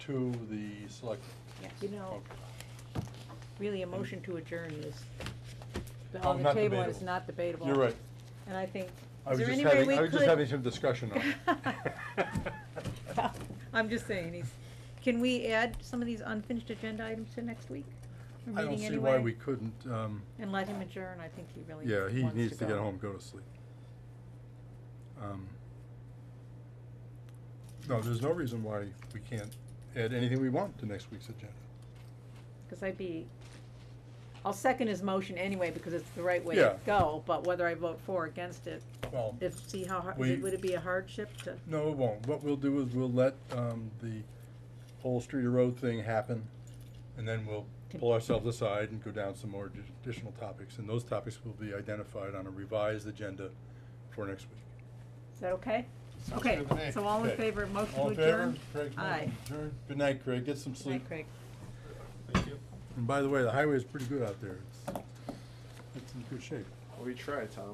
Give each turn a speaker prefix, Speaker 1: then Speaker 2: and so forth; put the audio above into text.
Speaker 1: to the select.
Speaker 2: Yes.
Speaker 3: You know, really, a motion to adjourn is,
Speaker 1: Oh,
Speaker 3: on the
Speaker 1: not
Speaker 3: table
Speaker 1: debatable.
Speaker 3: is not debatable.
Speaker 1: You're right.
Speaker 3: And I think,
Speaker 1: I
Speaker 3: is
Speaker 1: was
Speaker 3: there
Speaker 1: just
Speaker 3: any way
Speaker 1: having,
Speaker 3: we
Speaker 1: I was just
Speaker 3: could-
Speaker 1: having some discussion on it.
Speaker 3: Well, I'm just saying, he's, can we add some of these unfinished agenda items to next week? A
Speaker 1: I don't
Speaker 3: meeting
Speaker 1: see
Speaker 3: anyway?
Speaker 1: why we couldn't, um,
Speaker 3: And let him adjourn, I think he really
Speaker 1: yeah, he
Speaker 3: wants
Speaker 1: needs to get
Speaker 3: go.
Speaker 1: home, go to sleep. Um, No, there's no reason why we can't add anything we want to next week's agenda.
Speaker 3: Cause I'd be, I'll second his motion anyway, because it's the right way
Speaker 1: Yeah.
Speaker 3: to go, but whether I vote for or against it,
Speaker 1: Well,
Speaker 3: if, see how, har-
Speaker 1: We-
Speaker 3: would it be a hardship to?
Speaker 1: No, it won't. What we'll do is we'll let, um, the whole street or road thing happen, and then we'll pull ourselves aside and go down some more addi- additional topics, and those topics will be identified on a revised agenda for next week.
Speaker 3: Is that okay?
Speaker 1: Sounds
Speaker 3: Okay,
Speaker 1: good to me.
Speaker 3: so all in
Speaker 1: Okay.
Speaker 3: favor, motion
Speaker 1: All
Speaker 3: to
Speaker 1: in favor?
Speaker 3: adjourn?
Speaker 1: Craig's motion
Speaker 3: Aye.
Speaker 1: to adjourn. Good night, Craig. Get some
Speaker 3: Good night,
Speaker 1: sleep.
Speaker 3: Craig.
Speaker 4: Thank you.
Speaker 1: And by the way, the highway is pretty good out there. It's, it's in good shape.
Speaker 4: We try, Tom.